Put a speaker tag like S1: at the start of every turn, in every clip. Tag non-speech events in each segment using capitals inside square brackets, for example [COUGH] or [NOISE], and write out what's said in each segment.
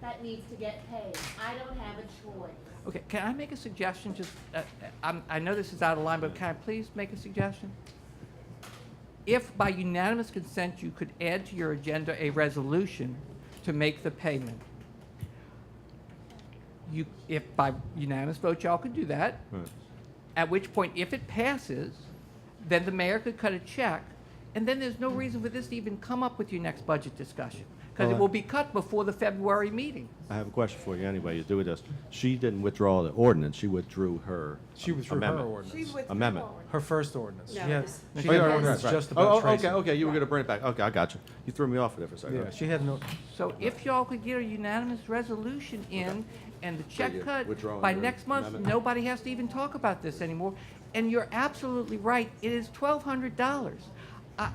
S1: that needs to get paid. I don't have a choice.
S2: Okay, can I make a suggestion? Just, uh, I'm, I know this is out of line, but can I please make a suggestion? If by unanimous consent you could add to your agenda a resolution to make the payment, you, if by unanimous vote y'all could do that,
S3: Right.
S2: at which point, if it passes, then the mayor could cut a check, and then there's no reason for this to even come up with your next budget discussion, because it
S3: Well, I-
S2: will be cut before the February meeting.
S3: I have a question for you anyway, you do with this. She didn't withdraw the ordinance, she withdrew her
S4: She withdrew her
S3: amendment.
S5: She
S4: ordinance.
S5: withdrew
S3: Amendment.
S5: forward.
S4: Her first ordinance.
S5: No,
S4: She had,
S5: this-
S4: she
S3: Oh,
S4: had
S3: yeah,
S4: an
S3: right,
S4: ordinance
S3: right.
S4: just
S3: Oh,
S4: about
S3: oh,
S4: Tracy.
S3: Okay, okay, you were gonna bring it back, okay, I got you. You threw me off there for a second.
S4: Yeah, she had no,
S2: So if y'all could get a unanimous resolution in and the
S3: you're
S2: check cut
S3: withdrawing
S2: by
S3: your
S2: next month,
S3: amendment?
S2: nobody has to even talk about this anymore. And you're absolutely right, it is twelve hundred dollars. I,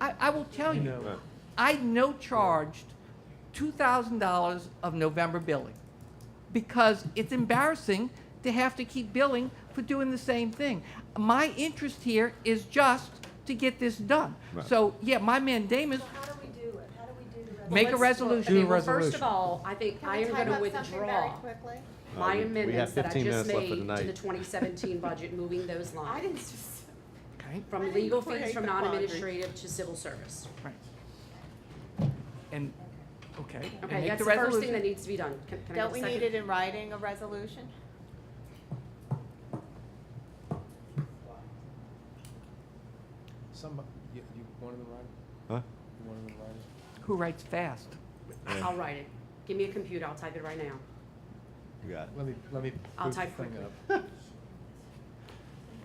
S2: I, I will tell
S4: know.
S2: you,
S3: Right.
S2: I no charged two thousand dollars of November billing because it's embarrassing to have to keep billing for doing the same thing. My interest here is just to get this done.
S3: Right.
S2: So, yeah, my mandamus,
S5: So how do we do it? How do we do the resolution?
S2: make a
S6: Let's-
S2: resolution.
S4: Do a
S6: okay, well, First
S4: resolution.
S6: of all, I think
S5: Can
S6: I
S5: we
S6: am
S5: type
S6: going to
S5: up something very
S6: withdraw
S5: quickly?
S6: my
S3: Uh, we- we have
S6: amendments that I
S3: 15
S6: just
S3: minutes left for
S6: made
S3: tonight.
S6: to the 2017 budget, moving those
S5: I
S6: lines.
S5: didn't, s-
S2: Okay.
S5: I
S6: From
S5: didn't
S6: legal fees,
S5: create
S6: from
S5: the quandary.
S6: non-administrative to civil service.
S2: Right. And, okay. and
S6: Okay,
S2: make
S6: that's the first thing
S2: resolution.
S6: that needs to be done. Can- can I get a
S5: don't we
S6: second?
S5: need it in writing, a resolution?
S4: some, you, you wanted to write,
S3: Huh?
S4: you wanted to write.
S2: Who writes fast?
S6: I'll write it. Give me a computer, I'll type it right now.
S3: You got it.
S4: Let me, let me.
S6: I'll
S4: boot the
S6: type
S4: thing
S6: quickly.
S4: up.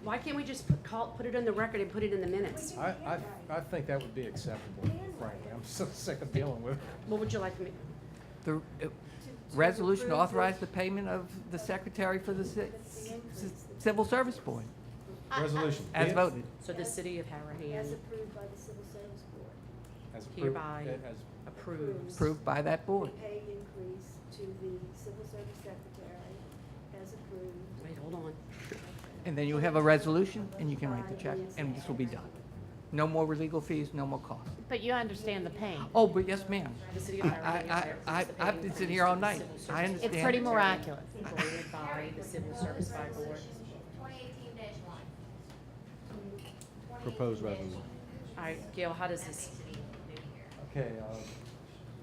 S6: Why can't we just put, call, put it in the record and put it in the minutes?
S4: I, I, I think that would be acceptable, frankly. I'm so [LAUGHS] sick of dealing with it.
S6: What would you like me,
S2: The uh, resolution authorized the payment of the secretary for the ci- ci- civil service board,
S4: Resolution.
S2: as
S4: Yes.
S2: voted.
S6: so the city of Harahan
S7: approved by the civil service board.
S4: As approved-
S6: hereby
S4: as-
S6: approves.
S2: Approved by that board.
S7: Pay increase to the civil service secretary as approved.
S6: Wait, hold on.
S2: And then you have a resolution, and you can write the check, and this will be done. No more legal fees, no more cost.
S1: But you understand the pain.
S2: Oh, but yes, ma'am.
S6: The city of
S2: I,
S6: Harahan
S2: I, I,
S6: approves the
S2: I've been
S6: pay
S2: sitting
S6: increase
S2: here all
S6: to the
S2: night.
S6: civil service
S2: I understand.
S1: It's pretty miraculous.
S6: voted by the civil service by board.
S8: Twenty eighteen dash one.
S3: Proposed resolution.
S6: All right, Gail, how does this,
S4: Okay, uh,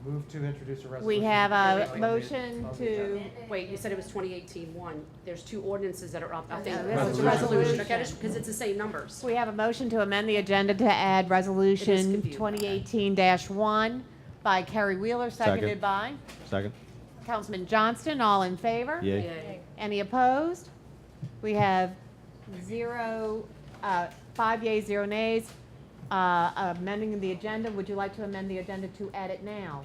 S4: move to introduce a resolution.
S1: We have a
S4: on the-
S1: motion
S4: on the
S1: to,
S4: agenda.
S6: wait, you said it was 2018 one, there's two ordinances that are up, I think.
S1: No,
S4: this is
S6: It's a Resolution, okay,
S1: resolution.
S6: just because it's the same numbers.
S1: we have a motion to amend the agenda to add resolution
S6: confusing.
S1: twenty eighteen one by Kerry Wheeler, seconded
S3: Second.
S1: by
S3: Second?
S1: Councilman Johnston. All in favor?
S3: Yay?
S6: Yay.
S1: Any opposed? We have zero, uh, five yeas, zero nays. Uh, Amending the agenda, would you like to amend the agenda to add it now?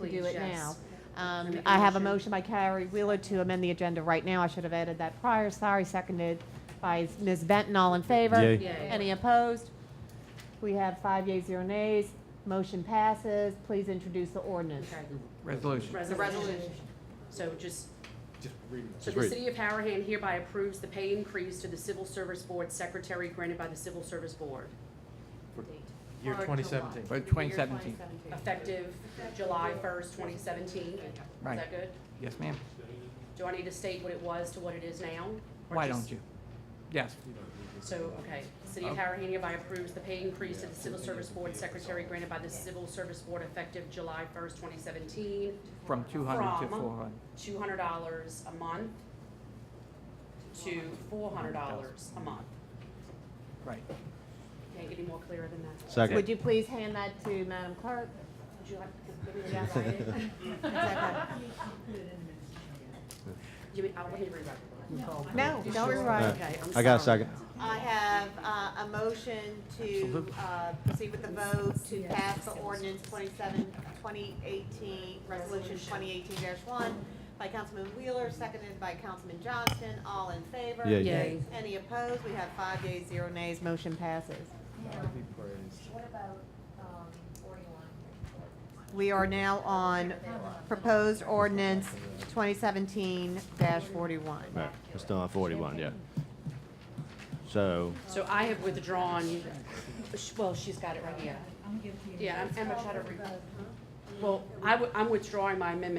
S1: To do
S6: Please,
S1: it now?
S6: yes.
S1: Um,
S6: Make a
S1: I have a motion
S6: motion.
S1: by Carrie Wheeler to amend the agenda right now. I should have added that prior, sorry, seconded by Ms. Benton. All in favor?
S3: Yay.
S6: Yay.
S1: Any opposed? We have five yeas, zero nays. Motion passes. Please introduce the ordinance.
S6: Okay,
S2: Resolution.
S6: the resolution. So just,
S4: Just reading this.
S6: so
S3: Just
S6: the
S3: read.
S6: city of Harahan hereby approves the pay increase to the civil service board secretary granted by the civil service board,
S4: Year
S6: Or July.
S4: 2017.
S2: For 2017.
S6: effective July 1st, 2017. Is
S2: Right.
S6: that good?
S2: Yes, ma'am.
S6: Do I need to state what it was to what it is now? or
S2: Why
S6: just-
S2: don't you? Yes.
S6: So, okay, City
S2: Um,
S6: of Harahan hereby approves the pay increase to the Civil Service Board Secretary granted by the Civil Service Board effective July first, twenty seventeen,
S2: From 200 to
S6: From-
S2: 400.
S6: two hundred dollars a month to four hundred dollars a month.
S2: Right.
S6: Can't get any more clearer than that.
S3: Second.
S1: Would you please hand that to Madam
S6: [LAUGHS]
S1: Clerk?
S6: Would you like, give me that right? You mean, I don't need to rewrite it.
S5: No, don't
S3: All
S5: rewrite.
S3: right.
S6: Okay, I'm
S3: [LAUGHS] I got a
S6: sorry.
S3: second.
S5: I have uh, a motion to uh, proceed with the vote to pass the ordinance 27, 2018, Resolution 2018-1 by Councilman Wheeler, seconded by Councilman Johnston. All in favor?
S3: Yay.
S6: Yay.
S5: Any opposed? We have five yeas, zero nays. Motion passes.
S4: God be praised.
S8: What about, um, forty-one?
S5: We are now on proposed ordinance 2017-41.
S3: Right, we're still on forty-one, yeah. So,
S6: So I have withdrawn, well, she's got it right here. Yeah, I'm, I'm gonna try to re- well, I, am withdrawing my amendment